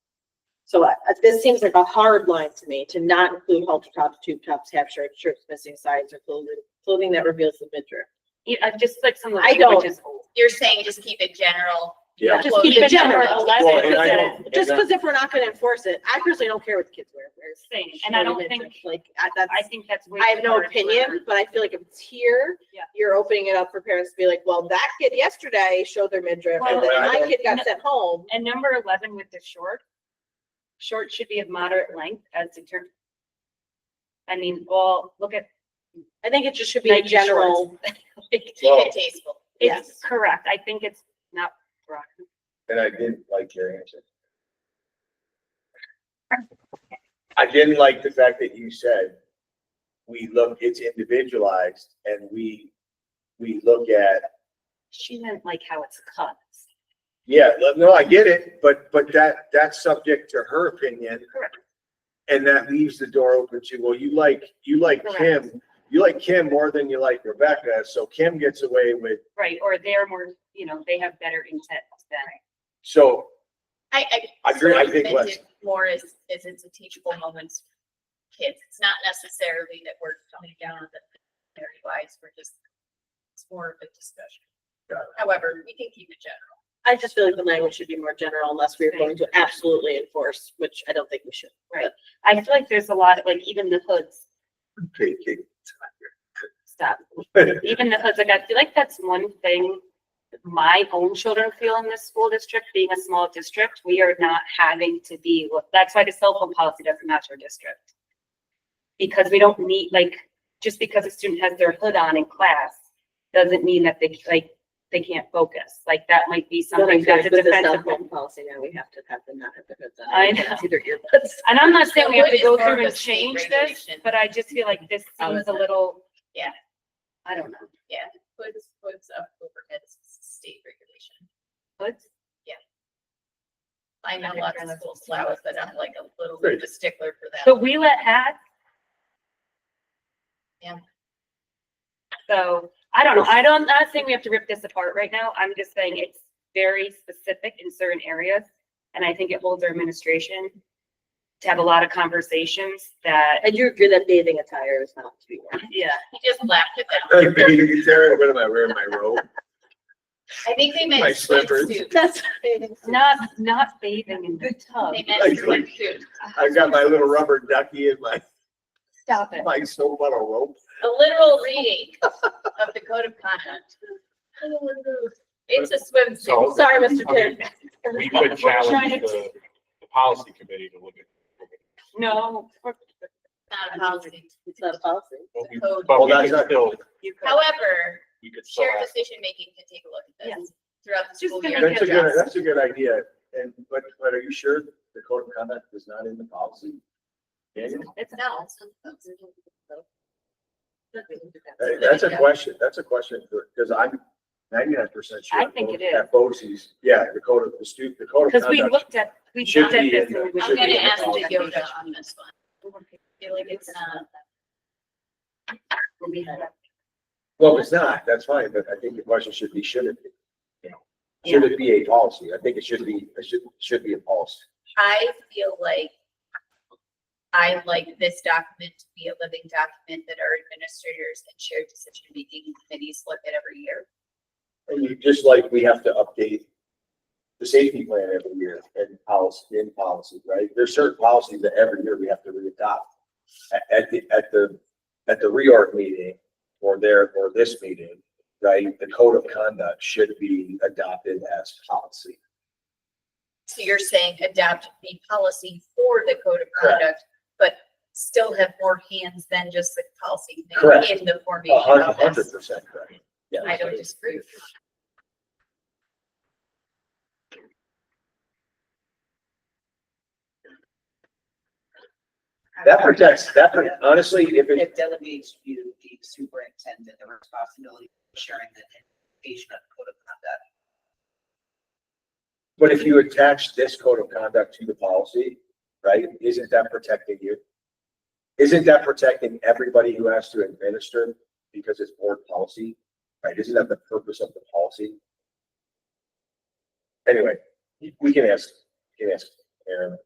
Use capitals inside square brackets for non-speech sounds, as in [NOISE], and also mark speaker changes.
Speaker 1: So uh, this seems like a hard line to me, to not include halter tops, tube tops, half shirts, shirts missing sides, or clothing, clothing that reveals the midriff.
Speaker 2: You know, just like some of
Speaker 1: I
Speaker 2: the
Speaker 1: don't-
Speaker 2: language is old.
Speaker 3: You're saying just keep it general?
Speaker 4: Yeah.
Speaker 3: not
Speaker 1: Just keep
Speaker 3: close
Speaker 1: it
Speaker 3: to
Speaker 1: general.
Speaker 4: Well, and I
Speaker 2: That's
Speaker 4: don't-
Speaker 1: Just because if we're not gonna enforce it, I personally don't care what the kids wear.
Speaker 2: the thing. And I don't think,
Speaker 1: Like, I- that's,
Speaker 2: I think that's. way
Speaker 1: I have
Speaker 2: too
Speaker 1: no
Speaker 2: hard for-
Speaker 1: opinion, but I feel like if it's here,
Speaker 2: Yeah.
Speaker 1: you're opening it up for parents to be like, well, that kid yesterday showed their midriff, and
Speaker 2: Well,
Speaker 1: then
Speaker 4: I
Speaker 1: my
Speaker 4: don't-
Speaker 1: kid got sent home.
Speaker 2: And number eleven with the short, short should be of moderate length as determined. I mean, well, look at,
Speaker 1: I think it just should be a
Speaker 2: Nike shorts.
Speaker 1: general.
Speaker 2: [LAUGHS] like,
Speaker 3: Keep it tasteful.
Speaker 2: it's
Speaker 1: Yes.
Speaker 2: correct. I think it's not broad.
Speaker 4: And I didn't like your answer. I didn't like the fact that you said, we look, it's individualized and we, we look at,
Speaker 2: She meant like how it's cut.
Speaker 4: yeah, no, no, I get it, but, but that, that's subject to her opinion.
Speaker 2: Correct.
Speaker 4: And that leaves the door open to, well, you like, you like
Speaker 2: Correct.
Speaker 4: Kim, you like Kim more than you like Rebecca, so Kim gets away with,
Speaker 2: Right, or they're more, you know, they have better intent than.
Speaker 4: so [LAUGHS]
Speaker 3: I, I.
Speaker 4: I agree,
Speaker 3: so
Speaker 4: I think
Speaker 3: meant
Speaker 4: less.
Speaker 3: it More is, is it's a teachable moment for kids. It's not necessarily that we're coming down on the very wise, we're just, it's more of a discussion.
Speaker 4: Got it.
Speaker 3: However, we can keep it general.
Speaker 1: I just feel like the language should be more general unless we're going to absolutely enforce, which I don't think we should.
Speaker 2: I feel like there's a lot, of like even the hoods,
Speaker 4: taking.
Speaker 2: stop. Even the hoods, like I feel like that's one thing my own children feel in this school district, being a small district, we are not having to be, that's why the cell phone policy doesn't match our district. Because we don't need, like, just because a student has their hood on in class, doesn't mean that they, like, they can't focus, like, that might be
Speaker 1: But I
Speaker 2: something
Speaker 1: feel
Speaker 2: that's
Speaker 1: like
Speaker 2: a
Speaker 1: with the cell
Speaker 2: defensive.
Speaker 1: phone policy now, we have to have them not have the goods on.
Speaker 2: I know.
Speaker 1: It's either earbuds.
Speaker 2: And I'm not saying we have to go
Speaker 3: So what is
Speaker 2: through
Speaker 3: more
Speaker 2: and
Speaker 3: of a state
Speaker 2: change this,
Speaker 3: regulation?
Speaker 2: but I just feel like this
Speaker 1: Oh,
Speaker 2: seems
Speaker 1: is
Speaker 2: a
Speaker 1: it?
Speaker 2: little.
Speaker 3: Yeah.
Speaker 2: I don't know.
Speaker 3: Hoods, hoods up overheads, is state regulation.
Speaker 2: Let's-
Speaker 3: I know lots of schools allow it, but I'm like a little bit of a stickler for that.
Speaker 2: So we let hat.
Speaker 3: Yeah.
Speaker 2: So, I don't know, I don't, I'm not saying we have to rip this apart right now, I'm just saying it's very specific in certain areas. And I think it holds our administration to have a lot of conversations that,
Speaker 1: I do agree that bathing attire is not to be worn.
Speaker 2: yeah.
Speaker 3: He just laughed at that.
Speaker 4: Hey, baby, Sarah, what am I wearing? My robe?
Speaker 3: I think they meant.
Speaker 4: My slippers.
Speaker 3: swimsuit.
Speaker 1: That's.
Speaker 2: Not, not bathing in the tub.
Speaker 3: They meant
Speaker 4: Like-
Speaker 3: swimsuit.
Speaker 4: I've got my little rubber ducky
Speaker 2: [LAUGHS]
Speaker 4: and my,
Speaker 2: Stop it.
Speaker 4: my soap on a rope.
Speaker 3: A literal reading of the code of conduct. It's a swimsuit.
Speaker 5: So-
Speaker 1: Sorry, Mr. Chair.
Speaker 5: We could
Speaker 2: trying
Speaker 5: challenge
Speaker 2: to-
Speaker 5: the, the policy committee to look at.
Speaker 2: No. we're-
Speaker 3: Not a policy.
Speaker 1: It's not a policy.
Speaker 5: but we-
Speaker 3: Code.
Speaker 5: But
Speaker 4: Well,
Speaker 5: we
Speaker 4: that's
Speaker 5: could
Speaker 4: not-
Speaker 5: still,
Speaker 2: you could-
Speaker 3: However,
Speaker 5: we could still
Speaker 3: shared
Speaker 5: ask.
Speaker 3: decision making can take a look at
Speaker 2: Yeah.
Speaker 3: this throughout the
Speaker 2: Just
Speaker 3: school
Speaker 2: gonna
Speaker 3: year.
Speaker 4: That's a
Speaker 2: get
Speaker 4: good, that's a good idea. And, but, but are you sure the code of conduct is not in the policy? Daniel?
Speaker 2: It's
Speaker 3: No.
Speaker 4: Hey, That's a question, that's a question, because I'm ninety-nine percent sure.
Speaker 2: I think it is.
Speaker 4: At BOCES, yeah, the code of, the stu, the code of
Speaker 2: Because we
Speaker 4: conduct.
Speaker 2: looked at, we
Speaker 4: Should
Speaker 2: looked at
Speaker 4: be
Speaker 2: this.
Speaker 4: in
Speaker 2: and
Speaker 4: the-
Speaker 2: we
Speaker 3: I'm
Speaker 2: should
Speaker 3: gonna
Speaker 2: be
Speaker 3: ask
Speaker 2: involved.
Speaker 3: the Yoda on this one. I feel like it's uh, not.
Speaker 2: When we had that.
Speaker 4: Well, if it's not, that's fine, but I think the question should be, should it be? You know, should it be a policy? I think it should be, it should, should be a policy.
Speaker 3: I feel like I like this document to be a living document that our administrators and shared decision making committees look at every year.
Speaker 4: And you, just like we have to update the safety plan every year and policy, in policy, right? There's certain policies that every year we have to re-adopt. At, at the, at the, at the reorg meeting or there, or this meeting, right? The code of conduct should be adopted as policy.
Speaker 3: So you're saying adopt the policy for the code of
Speaker 4: Correct.
Speaker 3: conduct, but still have more hands than just the policy committee
Speaker 4: Correct.
Speaker 3: in the
Speaker 4: A
Speaker 3: formation
Speaker 4: hundred,
Speaker 3: of
Speaker 4: a hundred
Speaker 3: this.
Speaker 4: percent correct. Yeah.
Speaker 3: I don't disagree with you.
Speaker 4: That protects, that, pro- honestly, if it,
Speaker 6: It delegates you, the superintendent, the responsibility of ensuring that education of code of conduct.
Speaker 4: but if you attach this code of conduct to the policy, right, isn't that protecting you? Isn't that protecting everybody who has to administer because it's board policy, right? Isn't that the purpose of the policy? Anyway, we can ask, we can ask Aaron